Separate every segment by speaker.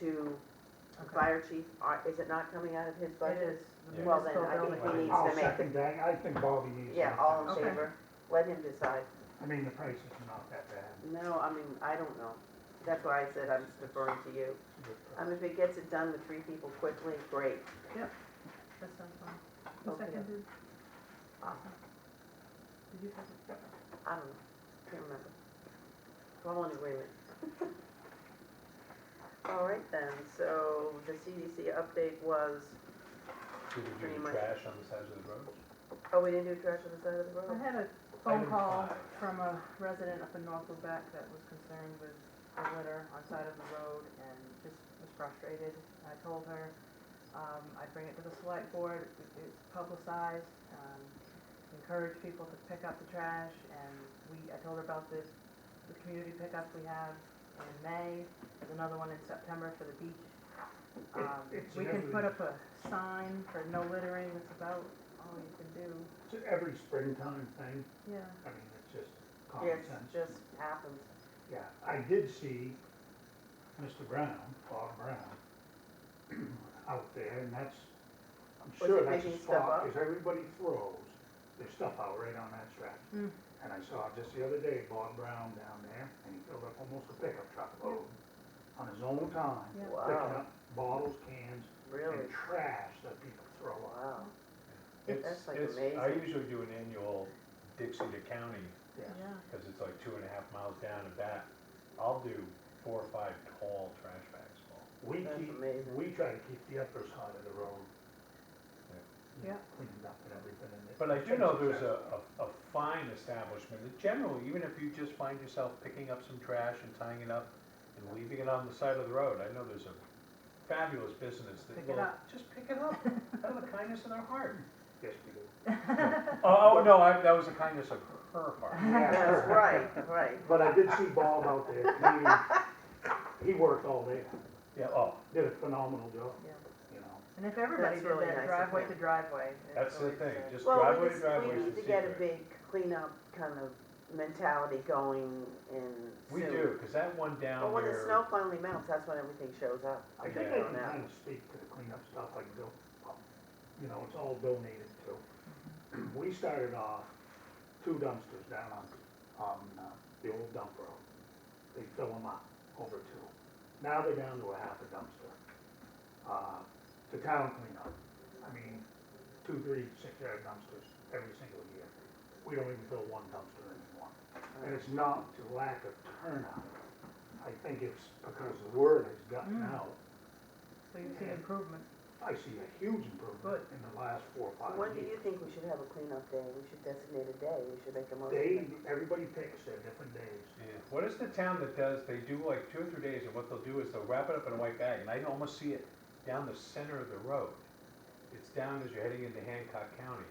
Speaker 1: to the
Speaker 2: Okay.
Speaker 1: fire chief, Are- is it not coming out of his budget?
Speaker 2: is.
Speaker 3: Yeah.
Speaker 1: Well, then I
Speaker 2: Municipal
Speaker 1: think
Speaker 2: building.
Speaker 1: he needs
Speaker 4: I'll
Speaker 1: to make,
Speaker 4: second that, I think Bobby needs to.
Speaker 1: yeah, all in
Speaker 2: Okay.
Speaker 1: favor, let him decide.
Speaker 4: I mean, the price is not that bad.
Speaker 1: No, I mean, I don't know, that's why I said I'm deferring to you.
Speaker 4: It's a good
Speaker 1: I
Speaker 4: price.
Speaker 1: mean, if it gets it done with three people quickly, great.
Speaker 2: That sounds fine. Who
Speaker 1: Okay.
Speaker 2: seconded?
Speaker 1: Awesome.
Speaker 2: Did you second?
Speaker 1: I don't know, can't remember. We're all in agreement. All right then, so the CDC update was,
Speaker 3: Did you
Speaker 1: Pretty
Speaker 3: do
Speaker 1: much.
Speaker 3: trash on the sides of the road?
Speaker 1: oh, we didn't do trash on the side of the
Speaker 2: I
Speaker 1: road?
Speaker 2: had a phone
Speaker 3: Item
Speaker 2: call
Speaker 3: five.
Speaker 2: from a resident up in North Quebec that was concerned with the litter on side of the road and just was frustrated. I told her, um, I'd bring it to the select board, It- it's publicized, um, encourage people to pick up the trash and we, I told her about this, the community pickup we have in May, there's another one in September for the beach. Um,
Speaker 4: It- it's
Speaker 2: we can put
Speaker 4: every-
Speaker 2: up a sign for no littering, that's about all you can do,
Speaker 4: It's a- every springtime thing,
Speaker 2: yeah.
Speaker 4: I mean, it's just
Speaker 1: Yes,
Speaker 4: common sense.
Speaker 1: just happens.
Speaker 4: Yeah, I did see Mr. Brown, Bob Brown, out there, and that's, I'm
Speaker 1: Was
Speaker 4: sure
Speaker 1: he
Speaker 4: that's
Speaker 1: making
Speaker 4: a
Speaker 1: stuff
Speaker 4: spot,
Speaker 1: up?
Speaker 4: because everybody throws their stuff out right on that stretch.
Speaker 1: Hmm.
Speaker 2: Mm.
Speaker 4: And I saw just the other day, Bob Brown down there, and he filled up almost a pickup truck load on his own time,
Speaker 2: Yeah.
Speaker 4: picking
Speaker 1: Wow,
Speaker 4: up bottles, cans,
Speaker 1: really?
Speaker 4: and trash that people throw out.
Speaker 1: Wow.
Speaker 3: It's-
Speaker 1: That's, like,
Speaker 3: it's- I
Speaker 1: amazing.
Speaker 3: usually do an annual Dixie to County,
Speaker 4: Yes.
Speaker 2: Yeah,
Speaker 3: because it's like two and a half miles down and back. I'll do four or five tall trash bags full.
Speaker 4: We
Speaker 1: That's
Speaker 4: keep,
Speaker 1: amazing.
Speaker 4: we try to keep the upper side of the road. you know,
Speaker 2: Yeah.
Speaker 4: Cleaned up and everything. and it-
Speaker 3: But I do know there's a, a, a fine establishment that generally, even if you just find yourself picking up some trash and tying it up and leaving it on the side of the road, I know there's a fabulous business that
Speaker 2: Pick it
Speaker 3: will.
Speaker 2: up.
Speaker 3: Just pick it up, out of the kindness of their heart.
Speaker 4: Yes, we do.
Speaker 3: Oh, oh, no, I, that was the kindness of her heart.
Speaker 1: That's right, right.
Speaker 4: But I did see Bob out there. He, he worked all day,
Speaker 3: Yeah, oh,
Speaker 4: did a phenomenal job,
Speaker 2: yeah.
Speaker 4: you know.
Speaker 2: And if everybody
Speaker 1: That's
Speaker 2: did
Speaker 1: really nice
Speaker 2: that
Speaker 1: of
Speaker 2: driveway
Speaker 1: him.
Speaker 2: to driveway. it
Speaker 3: that's the
Speaker 2: really
Speaker 3: thing,
Speaker 2: is.
Speaker 3: just
Speaker 1: Well,
Speaker 3: driveway
Speaker 1: we
Speaker 3: to
Speaker 1: just,
Speaker 3: driveway
Speaker 1: we
Speaker 3: is
Speaker 1: need
Speaker 3: the
Speaker 1: to get a
Speaker 3: secret.
Speaker 1: big cleanup kind of mentality going in
Speaker 3: We
Speaker 1: soon.
Speaker 3: do, because that one down
Speaker 1: But when the
Speaker 3: there,
Speaker 1: snow finally melts, that's when everything shows up.
Speaker 4: I
Speaker 1: I'm
Speaker 4: think I
Speaker 1: sure
Speaker 4: can
Speaker 1: now.
Speaker 4: kind of speak to the cleanup stuff, I can go, you know, it's all donated to. We started off two dumpsters down on, on uh, the old dump road. They fill them up, over two. Now they're down to a half a dumpster. Uh, The town cleanup, I mean, two, three, six-yard dumpsters every single year. We don't even fill one dumpster anymore. And it's not to lack of turnout. I think it's because the word has gotten
Speaker 2: Mm.
Speaker 4: out
Speaker 2: So you see improvement.
Speaker 4: I see a huge improvement
Speaker 2: Good.
Speaker 4: in the last four or
Speaker 1: So
Speaker 4: five
Speaker 1: When do
Speaker 4: years.
Speaker 1: you think we should have a cleanup day? We should designate a day, we should make a
Speaker 4: They,
Speaker 1: motion.
Speaker 4: everybody picks their different days.
Speaker 3: Yeah. what is the town that does, they do like two or three days, and what they'll do is they'll wrap it up in a white bag, and I can almost see it down the center of the road. It's down as you're heading into Hancock County.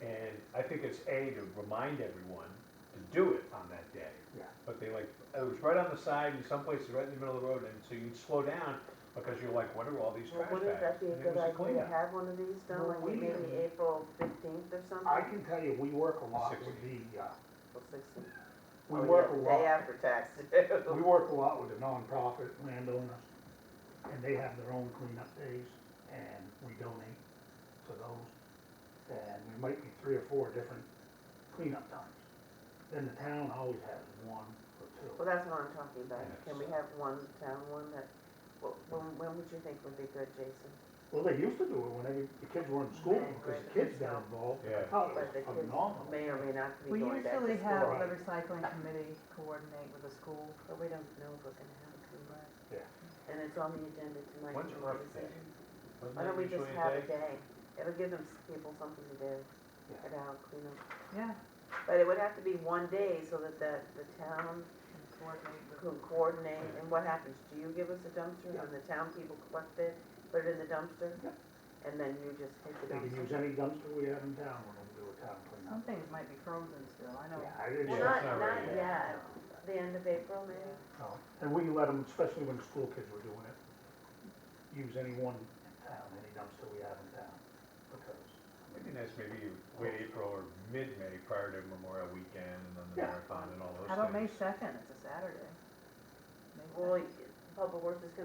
Speaker 3: And I think it's A, to remind everyone to do it on that day.
Speaker 4: Yeah.
Speaker 3: But they like, it was right on the side, and some places right in the middle of the road, and so you slow down, because you're like, what are all these
Speaker 1: Well,
Speaker 3: trash bags?
Speaker 1: Wouldn't that be a
Speaker 3: And it
Speaker 1: good
Speaker 3: was a
Speaker 1: idea to
Speaker 3: cleanup.
Speaker 1: have one of these done,
Speaker 4: Well,
Speaker 1: like
Speaker 4: we-
Speaker 1: maybe April fifteenth or something?
Speaker 4: I can tell you, we work a lot with
Speaker 3: Sixty.
Speaker 4: the, uh,
Speaker 1: April 16th.
Speaker 4: we
Speaker 1: Oh,
Speaker 4: work
Speaker 1: yeah,
Speaker 4: a
Speaker 1: Day
Speaker 4: lot,
Speaker 1: after tax.
Speaker 4: we work a lot with the nonprofit landowners, and they have their own cleanup days, and we donate to those. And there might be three or four different cleanup times. Then the town always has one or two.
Speaker 1: Well, that's what I'm talking about.
Speaker 3: Yeah,
Speaker 1: Can we
Speaker 3: so-
Speaker 1: have one town, one that, well, when, when would you think would be good, Jason?
Speaker 4: Well, they used to do it when every- the kids were in school,
Speaker 1: Right,
Speaker 4: because the
Speaker 1: right.
Speaker 4: kids got involved, and I
Speaker 3: Yeah.
Speaker 4: thought it
Speaker 1: But the
Speaker 4: was
Speaker 1: kids
Speaker 4: phenomenal.
Speaker 1: may or may not be
Speaker 2: We
Speaker 1: going back to school.
Speaker 2: usually have
Speaker 4: Right.
Speaker 2: the recycling committee coordinate with the school.
Speaker 1: But we don't know if we're gonna have a clean break.
Speaker 4: Yeah.
Speaker 1: And it's on the agenda tonight.
Speaker 3: When's
Speaker 1: for
Speaker 3: Earth Day?
Speaker 1: decision.
Speaker 3: Wasn't
Speaker 1: Why don't
Speaker 3: that
Speaker 1: we just
Speaker 3: usually
Speaker 1: have
Speaker 3: day?
Speaker 1: a day? It'll give them, s- people something to do,
Speaker 4: Yeah.
Speaker 1: at our cleanup.
Speaker 2: Yeah.
Speaker 1: But it would have to be one day so that the, the town
Speaker 2: and coordinate with-
Speaker 1: can coordinate, and what happens? Do you give us a dumpster,
Speaker 4: Yeah.
Speaker 1: and the town people collect it, put it in the dumpster?
Speaker 4: Yeah.
Speaker 1: And then you just take the
Speaker 4: They can use
Speaker 1: dumpster?
Speaker 4: any dumpster we have in town when we do a town
Speaker 2: Some
Speaker 4: cleanup.
Speaker 2: things might be frozen still, I know.
Speaker 4: Yeah, I didn't.
Speaker 1: Oh, Well,
Speaker 3: Yeah,
Speaker 1: not,
Speaker 3: it's not
Speaker 1: not
Speaker 3: ready yet.
Speaker 1: yet, the end of April maybe?
Speaker 4: No. And we let them, especially when school kids were doing it, use any one in town, any dumpster we have in town, because,
Speaker 3: It'd be nice, maybe you wait April or mid-May prior to Memorial Weekend and then the
Speaker 4: Yeah.
Speaker 3: marathon and all those
Speaker 2: How
Speaker 3: things.
Speaker 2: about May second, it's a Saturday? May
Speaker 1: Well,
Speaker 2: 2nd.
Speaker 1: Public Works is gonna